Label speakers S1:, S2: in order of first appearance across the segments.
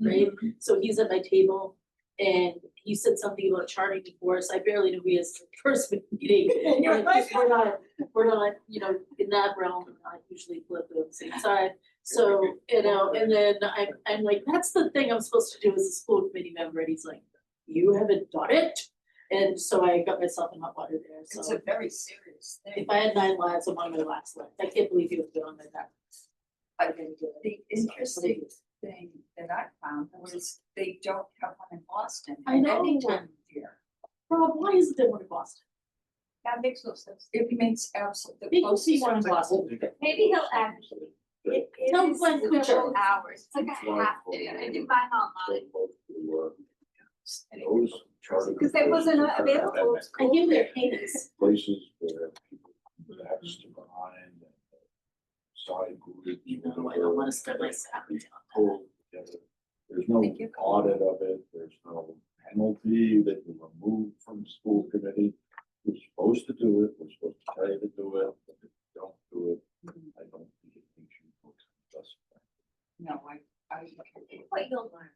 S1: right? So he's at my table and he said something about charting divorce. I barely knew we had the first meeting. And you're like, we're not, we're not, you know, in that realm, we're not usually political at the same time. So, you know, and then I'm, I'm like, that's the thing I'm supposed to do as a school committee member. And he's like, you haven't done it. And so I got myself in hot water there,
S2: It's
S1: so
S2: a very serious thing.
S1: if I had nine lives, I'm on my last life. I can't believe you have been on my back. I didn't do it.
S2: The interesting thing that I found was they don't have one in Boston.
S1: I know.
S2: Anyone here.
S1: Rob, why isn't there one in Boston?
S2: That makes no sense. It makes absolutely.
S1: Maybe we'll see one in Boston.
S3: Maybe he'll advocate. It
S1: Tell
S3: it is
S1: Glenn Kutcher.
S3: several hours, it's like I have to, I did mine online, because it wasn't available.
S1: I hear they're heinous.
S4: Places where people have to behind and uh, side group.
S1: You know, I don't wanna spend my salary on
S4: Pull together. There's no
S2: Thank you.
S4: audit of it, there's no penalty that you remove from school committee. We're supposed to do it, we're supposed to tell you to do it, but if you don't do it, I don't think it makes you look justified.
S2: No, I, I.
S3: Wait, you'll learn.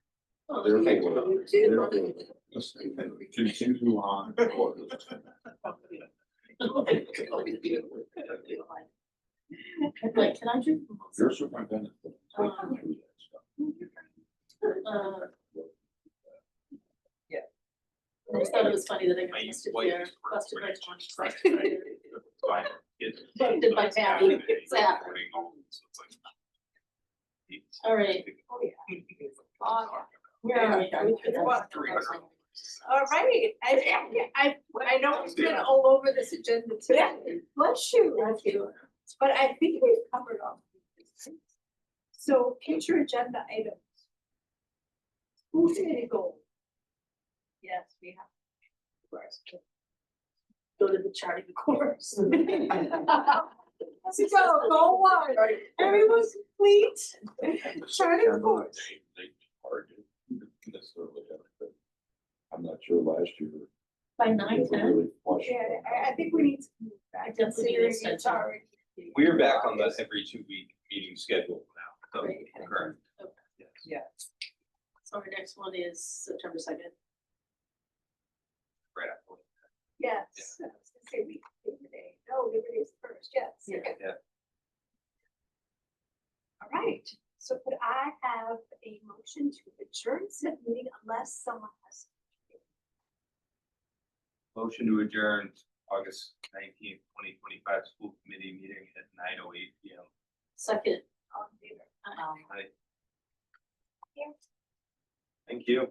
S1: that.
S4: Therefore,
S2: Too.
S4: therefore, continue on.
S1: Like, can I drink? from
S4: You're superintendent. but
S1: Um,
S4: I'm taking you through
S1: Boston? Uh, I just
S5: It's
S1: thought
S5: not
S1: it
S5: a
S1: was funny that I got
S5: My
S1: busted
S5: wife
S1: there,
S5: is
S1: busted by
S5: French.
S1: John.
S5: French. fine. It's-
S1: Funded by
S5: it's
S1: family.
S5: happening. It's
S1: Exactly.
S5: happening. So it's like- It's-
S1: All right,
S2: Oh, yeah.
S3: Oh,
S1: where are we? Are we good?
S5: What? 300.
S3: All right, I, I, I know we've been all over this agenda today, bless you,
S1: Thank you.
S3: but I think we've covered all. of these. So future agenda items. Who's gonna go? Yes, we have.
S1: Go to the charting course.
S3: Let's go, go one, everyone's complete. Charting
S4: September,
S3: course.
S4: They, they target necessarily. but I'm not sure last year.
S1: By
S4: they
S1: nine,
S4: ever
S1: ten?
S4: really flushed
S3: Yeah,
S4: that out.
S3: I, I think we need to move
S1: I
S3: back,
S1: definitely need
S3: considering
S1: to
S3: it's
S1: stretch out.
S3: already.
S5: We're back on the every two week meeting schedule now, so,
S1: Great.
S5: correct.
S1: Okay.
S5: Yes.
S1: So our next one is September second.
S5: Right after.
S3: Yes, I was gonna say we, Labor Day, no, Labor Day is first, yes,
S1: Yeah.
S3: okay.
S5: Yeah.
S3: All right, so could I have a motion to adjourn said meeting unless someone has.
S5: Motion to adjourn August nineteenth, twenty twenty five school committee meeting at nine oh eight P M.
S1: Second.
S2: um,
S3: all in
S1: Uh,
S3: favor?
S5: Thank you.